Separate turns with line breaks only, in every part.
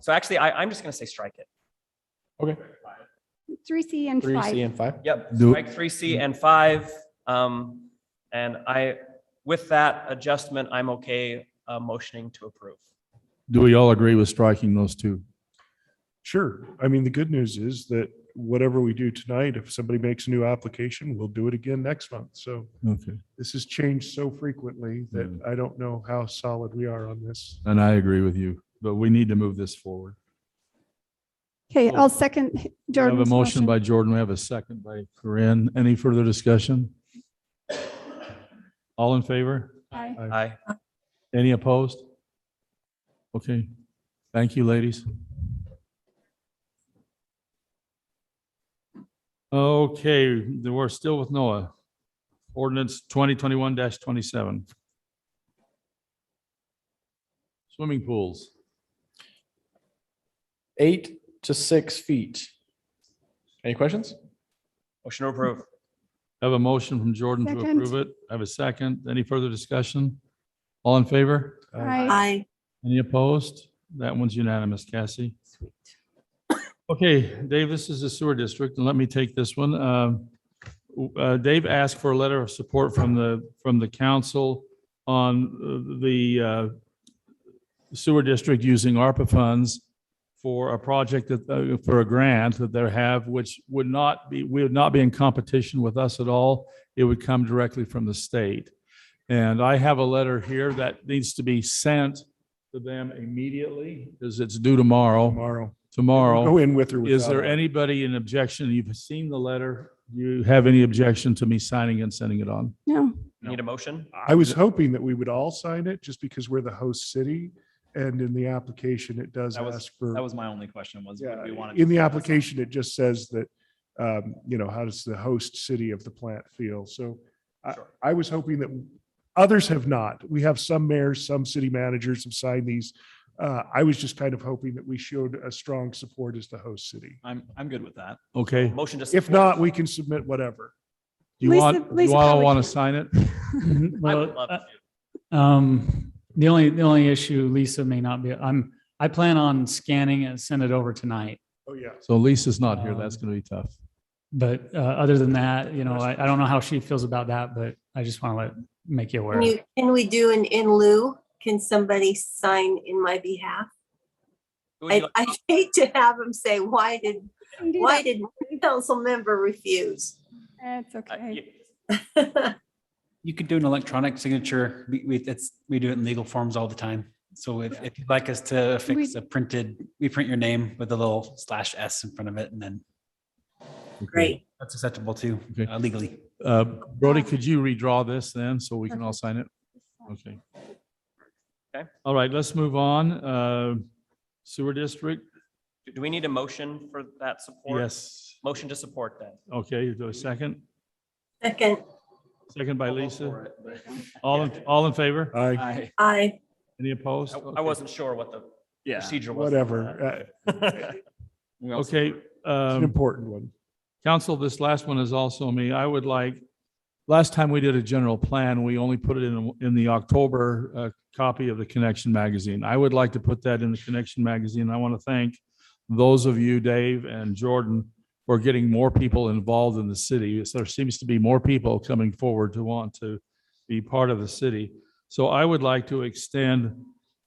So actually, I, I'm just gonna say strike it.
Okay,
Three C and
three C
five.
and five.
Yep,
Do-
strike three C and five. Um, and I, with that adjustment, I'm okay, uh, motioning to approve.
Do we all agree with striking those two?
Sure. I mean, the good news is that whatever we do tonight, if somebody makes a new application, we'll do it again next month. So
Okay,
this has changed so frequently
Hmm.
that I don't know how solid we are on this.
and I agree with you, but we need to move this forward.
Okay, I'll second
We have a
Jordan's
motion
motion.
by Jordan, we have a second by Corinne. Any further discussion? All in favor?
Aye.
Aye.
Any opposed? Okay, thank you, ladies. Okay, then we're still with Noah. Ordinance twenty twenty-one twenty-seven. Swimming pools.
Eight to six feet. Any questions?
Motion to approve.
I Have a motion from Jordan to
Second.
approve it. I have a second. Any further discussion? All in favor?
Aye.
Aye.
Any opposed? That one's unanimous, Cassie.
Sweet.
Okay, Dave, this is the sewer district, and let me take this one. Um, w- uh, Dave asked for a letter of support from the, from the council on uh, the uh, sewer district using ARPA funds for a project that, uh, for a grant that they have, which would not be, we would not be in competition with us at all. It would come directly from the state. And I have a letter here that needs to be sent to them immediately, because it's due tomorrow,
Tomorrow.
tomorrow.
Go in with or without.
Is there anybody in objection? You've seen the letter. Do you have any objection to me signing and sending it on?
No,
Need a motion?
I was hoping that we would all sign it just because we're the host city. And in the application, it does
That was-
ask for.
That was my only question was.
Yeah,
we wanted
in the
to-
application, it just says that, um, you know, how does the host city of the plant feel? So I,
Sure.
I was hoping that others have not. We have some mayors, some city managers have signed these. Uh, I was just kind of hoping that we showed a strong support as the host city.
I'm, I'm good with that.
Okay.
Motion to.
If
support.
not, we can submit whatever.
You
Lisa-
want, you
Lisa
all
probably-
want to sign it?
I would love to.
Mm-hmm. Well, uh, um, the only, the only issue, Lisa may not be, I'm, I plan on scanning and send it over tonight.
Oh, yeah.
So Lisa's not here. That's
Um,
going to be tough.
But, uh, other than that, you know, I, I don't know how she feels about that, but I just want to let, make you aware.
Can you, can we do an in lieu? Can somebody sign in my behalf?
Who would you
I,
like-
I hate to have them say, why did,
you can do
why
that.
did one council member refuse?
It's
uh,
okay.
yeah.
You could do an electronic signature. We, we, it's, we do it in legal forms all the time. So if, if you'd like us to
We-
fix a printed, we print your name with a little slash S in front of it and then
Okay.
Great.
that's acceptable too
Okay.
uh, legally.
Uh, Brody, could you redraw this then so we can all sign it? Okay.
Okay.
All right, let's move on. Uh, Sewer district?
Do- Do we need a motion for that support?
Yes.
Motion to support then.
Okay, do a second.
Second,
Second by Lisa. All, in- all in favor?
I,
I,
I,
Any opposed?
Uh, I- I
Okay.
wasn't sure what the
yeah.
procedure was.
whatever. Uh, It's
we also-
Okay.
an
um,
important one.
Council, this last one is also me. I would like, last time we did a general plan, we only put it in, in the October uh, copy of the Connection Magazine. I would like to put that in the Connection Magazine. I want to thank those of you, Dave and Jordan, for getting more people involved in the city. There seems to be more people coming forward to want to be part of the city. So I would like to extend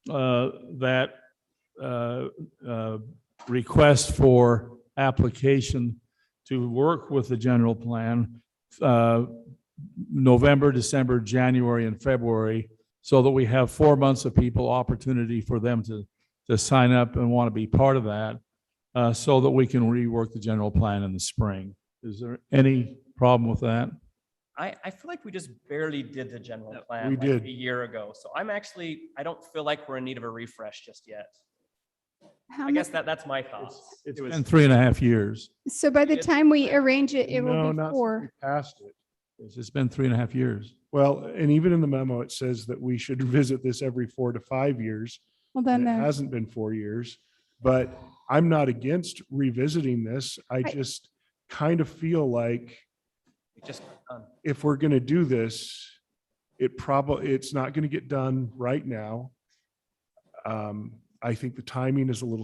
uh, that uh, uh, request for application to work with the general plan, uh, November, December, January, and February, so that we have four months of people, opportunity for them to, to sign up and want to be part of that, uh, so that we can rework the general plan in the spring. Is there any problem with that?
I, I feel like we just barely did the general plan.
we
like,
did.
A year ago. So I'm actually, I don't feel like we're in need of a refresh just yet.
How
I
mu-
guess that, that's my thoughts.
It's been three and a half years.
So by the
It's-
time we arrange it, it
No,
will be
not-
four.
Passed it.
It's just been three and a half years.
Well, and even in the memo, it says that we should visit this every four to five years.
Well,
and
then uh,
It
there.
hasn't been four years, but I'm not against revisiting this. I just kind of feel like
We Just, um,
if we're going to do this, it probably, it's not going to get done right now. Um, I think the timing is a little